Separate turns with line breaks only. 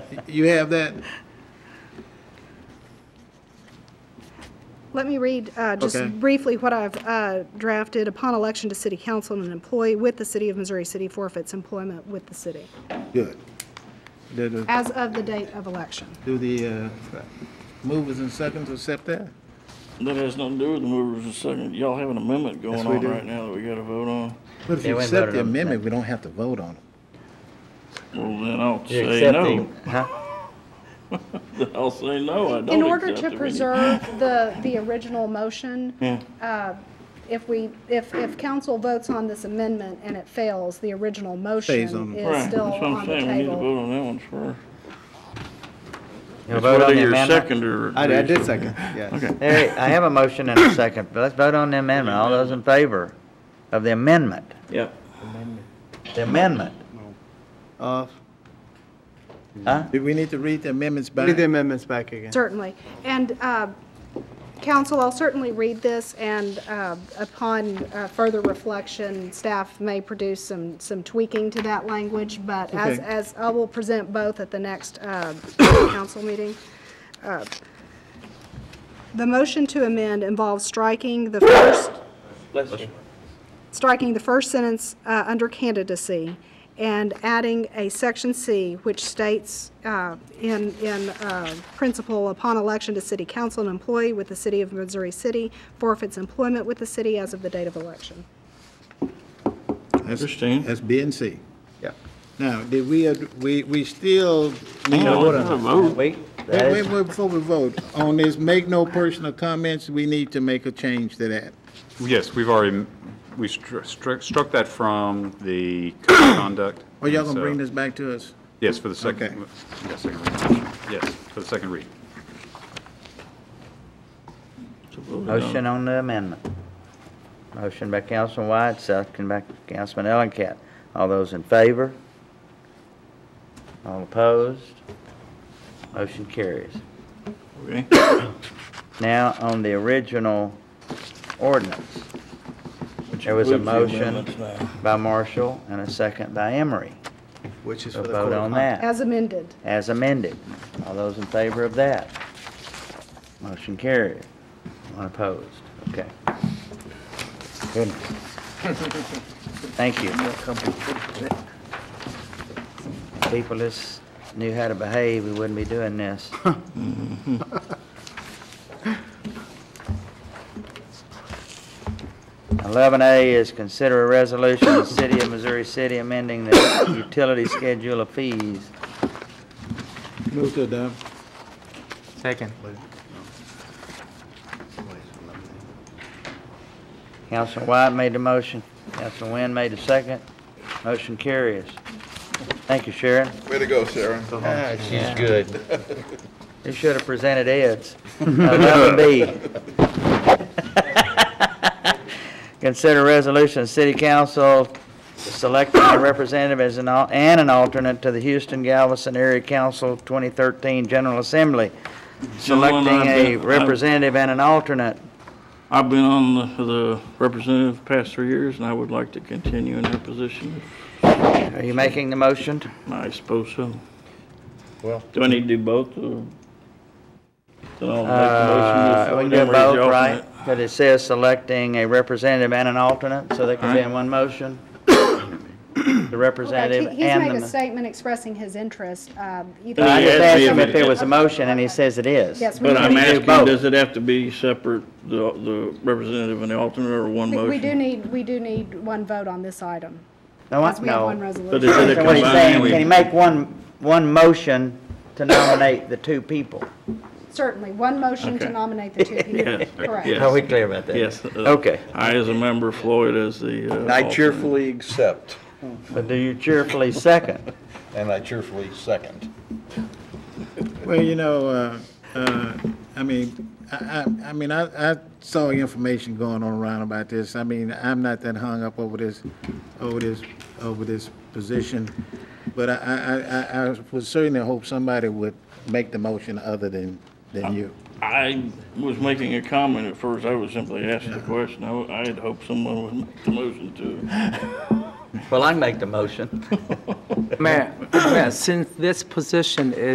You have that?
Let me read uh,
Okay.
just briefly what I've uh, drafted. Upon election to city council, an employee with the city of Missouri City forfeits employment with the city
Good. Do the,
as of the date of election.
do the, uh, movers and seconds accept that?
That has nothing to do with the movers and seconds. Y'all have an amendment going
Yes, we
on
do.
right now that we gotta vote on.
But if
They
you
wouldn't
accept
vote
the
on it.
amendment, we don't have to vote on it.
Well, then I'll
You're
say no.
accepting- huh?
I'll say no, I don't accept it.
In order to
We-
preserve the, the original motion,
Yeah,
if we, if, if council votes on this amendment and it fails, the original
Stays on
motion
the-
is
right, that's
still
what I'm
on the
saying. We need to
table.
vote on that one first.
You
It's
vote on
whether
the
you're
amendment?
second or.
I, I did second, yes.
There, I have a motion and a second, but let's vote on the amendment. All those in favor of the amendment,
Yep.
the amendment,
Off.
huh?
Do we need to read the amendments back?
Read the amendments back again.
Certainly. And uh, council, I'll certainly read this, and uh, upon uh, further reflection, staff may produce some, some tweaking to that language, but as,
Okay.
as, I will present both at the next uh, council meeting. Uh, The motion to amend involves striking the first striking the first sentence uh, under candidacy and adding a section C, which states uh, in, in uh, principle, upon election to city council, an employee with the city of Missouri City forfeits employment with the city as of the date of election.
Understand.
That's B and C.
Yeah.
Now, did we, ad- we, we still need to
Yeah,
vote
let's
on?
vote.
Wait, that
Wait, wait,
is,
wait, before we vote, on this, make no personal comments, we need to make a change to that.
Yes, we've already, we stru- struck struck that from the code of conduct.
Are Oh, y'all
and
gonna
so-
bring this back to us?
Yes, for the
Okay.
second, yes, second read. Yes, for the second read.
motion on the amendment. Motion by Councilman White, second by Councilman Ellencat. All those in favor? All opposed? Motion carries.
Okay.
Now, on the original ordinance, there was a
includes the
motion
amendments now.
by Marshall and a second by Emery.
Which is for
So
the.
vote
code of
on
conduct.
that,
As amended.
as amended. All those in favor of that? Motion carried. One opposed. Okay. Goodness. Thank you. People just knew how to behave, we wouldn't be doing this. Eleven A is consider a resolution of the City of Missouri City amending the utility schedule of fees.
Move to adopt.
Second. Councilman White made the motion. Councilman Wynn made the second. Motion carries. Thank you, Sharon.
Way to go, Sharon.
Ah, She's good. You should have presented Ed's. Eleven B. Consider resolution, city council selecting a representative as an, al- and an alternate to the Houston Galveston Area Council 2013 General Assembly.
Gentlemen,
Selecting
I've
a
been- I've-
representative and an alternate.
I've been on the, the representative the past three years, and I would like to continue in that position.
Are you making the motion?
I suppose so. Well. Do I need to do both, or? Then I'll make
Uh,
the
We
motion.
can do
Emery's the
both, right?
alternate.
But it says selecting a representative and an alternate, so they can be
Alright.
in one motion. The representative
He's
and
made
the.
a
mo-
statement expressing his interest. um, either-
But
I just
He asked
asked
me
him
if
if there
it-
was a motion, and he says it is.
Yes, we
But I'm
do-
do
asking,
both.
does it have to be separate, the, the representative and the alternate, or one
we-
motion?
we do need, we do need one vote on this item.
No, I-
because we have one
no.
resolution.
But is it a
So what he's saying, can he
combined?
make one, one motion to nominate the two people?
Certainly, one motion to
Okay.
nominate the two people.
Yes,
Correct.
yes. Are we
clear about that?
Yes. uh,
Okay.
I, as a member, Floyd as the. uh,
I
alternate.
cheerfully accept,
But do you cheerfully second?
and I cheerfully second.
Well, you know, uh, uh, I mean, I, I, I mean, I, I saw information going on around about this. I mean, I'm not that hung up over this, over this, over this position. But I, I, I, I would certainly hope somebody would make the motion other than, than you.
I was making a comment at first, I was simply asking a question, I, I had hoped someone would make the motion to.
Well, I make the motion.
Mayor, Mayor, since this position is.